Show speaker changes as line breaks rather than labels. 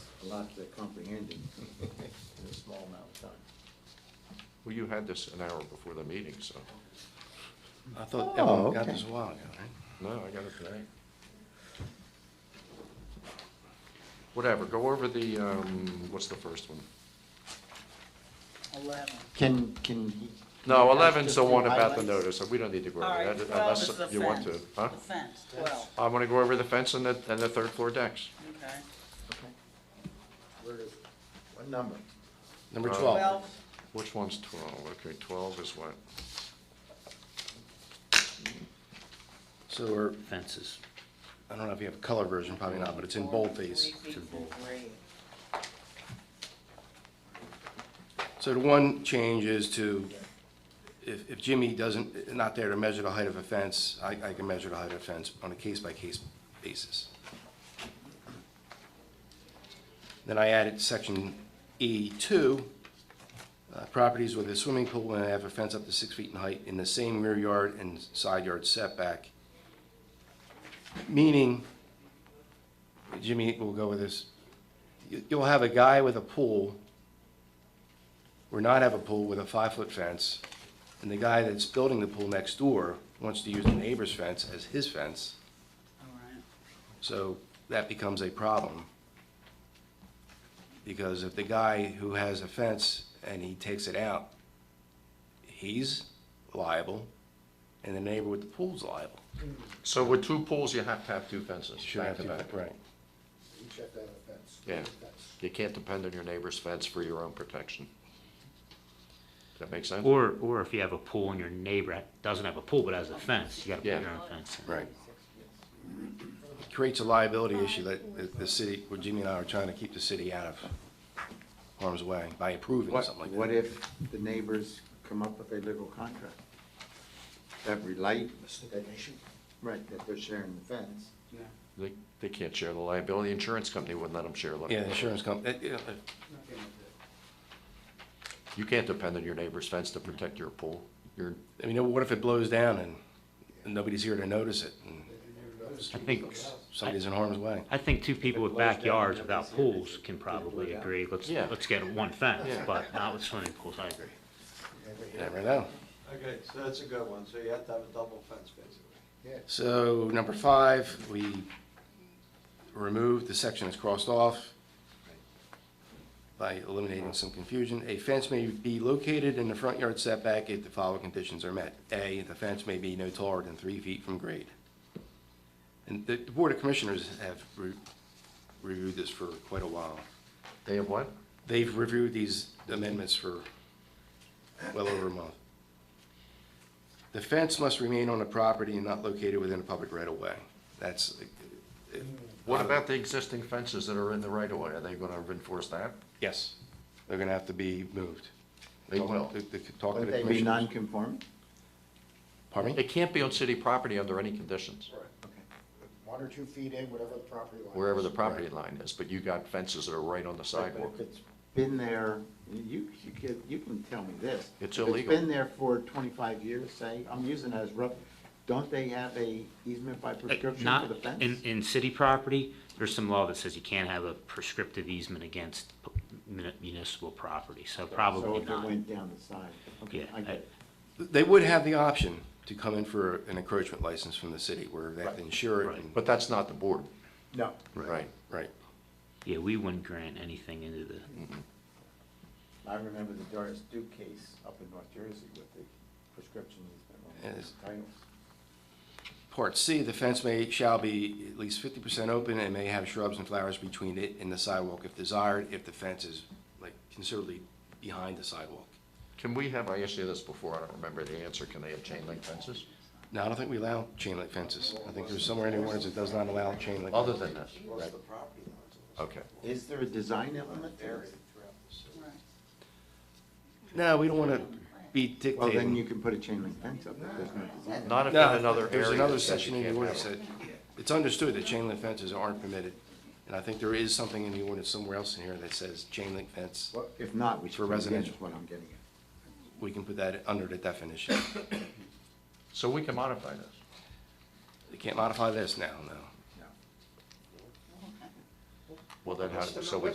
a lot to comprehend in in a small amount of time.
Well, you had this an hour before the meeting, so,
I
Oh,
thought everyone got
okay.
this a while ago, right?
no, I got it today. Whatever, go over the, um, what's the first one?
Eleven.
Can, can he?
No,
can I ask
eleven's
just
the
to
one about the
highlight?
notice, and we don't need to go
All
over
right,
that
twelve is
unless
the fence.
you want to, huh?
The fence, twelve,
I want to go over the fence and the, and the third floor decks.
okay.
Okay. Where is, what number?
Number
Uh,
twelve,
Twelve,
Which one's twelve? Okay, twelve is what?
so we're, fences. I don't know if you have a color version, probably not, but it's in boldface.
three feet from grade.
So the one change is to, if, if Jimmy doesn't, not there to measure the height of a fence, I, I can measure the height of a fence on a case-by-case basis. Then I added section E two, uh, properties with a swimming pool and have a fence up to six feet in height in the same rear yard and side yard setback. Meaning, Jimmy will go with this, you- you'll have a guy with a pool or not have a pool with a five-foot fence, and the guy that's building the pool next door wants to use the neighbor's fence as his fence,
All right.
so that becomes a problem. Because if the guy who has a fence and he takes it out, he's liable, and the neighbor with the pool's liable.
So with two pools, you have to have two fences,
Should
back
have
to
to-
back.
Right.
Each have to have a fence.
Yeah.
Fence.
You can't depend on your neighbor's fence for your own protection. Does that make sense?
Or, or if you have a pool and your neighbor doesn't have a pool but has a fence, you gotta
Yeah.
put your own fence in.
Right. Creates a liability issue that that the city, where Jimmy and I are trying to keep the city out of harm's way by approving
What,
something like that.
what if the neighbors come up with a legal contract? That relate,
Stipulation.
right, that they're sharing the fence.
They, they can't share the liability. Insurance company wouldn't let them share
Yeah,
liability.
insurance company,
You can't depend on your neighbor's fence to protect your pool. Your,
I mean, what if it blows down and- and nobody's here to notice it, and
I think,
somebody's in harm's way?
I think two people with backyards without pools can probably agree, let's,
Yeah.
let's get one fence,
Yeah.
but not with swimming pools, I agree.
You Never know.
Okay, so that's a good one, so you have to have a double fence, basically.
So, number five, we removed, the section is crossed off by eliminating some confusion. A fence may be located in the front yard setback if the following conditions are met. A, the fence may be no taller than three feet from grade. And the the Board of Commissioners have re- reviewed this for quite a while.
they have what?
They've reviewed these amendments for well over a month. The fence must remain on the property and not located within a public right-of-way. That's, uh,
What about the existing fences that are in the right of way? Are they gonna enforce that?
yes, they're gonna have to be moved.
They will.
Talk to the- Talk to
Would
the
they be
commissioners.
non-conforming?
Pardon me?
It can't be on city property under any conditions,
One or two feet in, whatever the property line.
wherever
is.
the property line is, but you got fences that are right on the sidewalk.
But if it's been there, you, you can, you can tell me this.
It's
If
illegal.
it's been there for twenty-five years, say, I'm using that as rough, don't they have a easement by prescription for
Not,
the fence?
in, in city property, there's some law that says you can't have a prescriptive easement against pu- mun- municipal property, so probably
So if it
not.
went down the side, okay,
Yeah,
I get it.
They would have the option to come in for an encroachment license from the city where they have to insure it. and-
But that's not the board,
No,
right?
Right.
Yeah, we wouldn't grant anything into the,
I remember the Doris Duke case up in North Jersey with the prescription easement on
Yes.
the titles.
Part C, the fence may, shall be at least fifty percent open and may have shrubs and flowers between it and the sidewalk if desired, if the fence is like considerably behind the sidewalk.
Can we have, I asked you this before, I don't remember the answer, can they have chain link fences?
No, I don't think we allow chain link fences. I think there's somewhere in the ordinance that does not allow chain link.
Other than this,
What's the property lines?
okay.
Is there a design element to
Area
this?
throughout the city.
Right.
No, we don't want to be
Well, then you
dictating.
can put a chain link fence up if there's no design.
Not if in
No,
another area.
There's another
that says
section
you
in the
can't
ordinance
have
that,
it.
it's understood that chain link fences aren't permitted. And I think there is something in the ordinance somewhere else in here that says chain link fence.
Well, If not, we
For
should put it in,
residential.
is what I'm getting at.
We can put that under the definition.
So we can modify this.
They can't modify this now, no.
No.
Well, then how, so we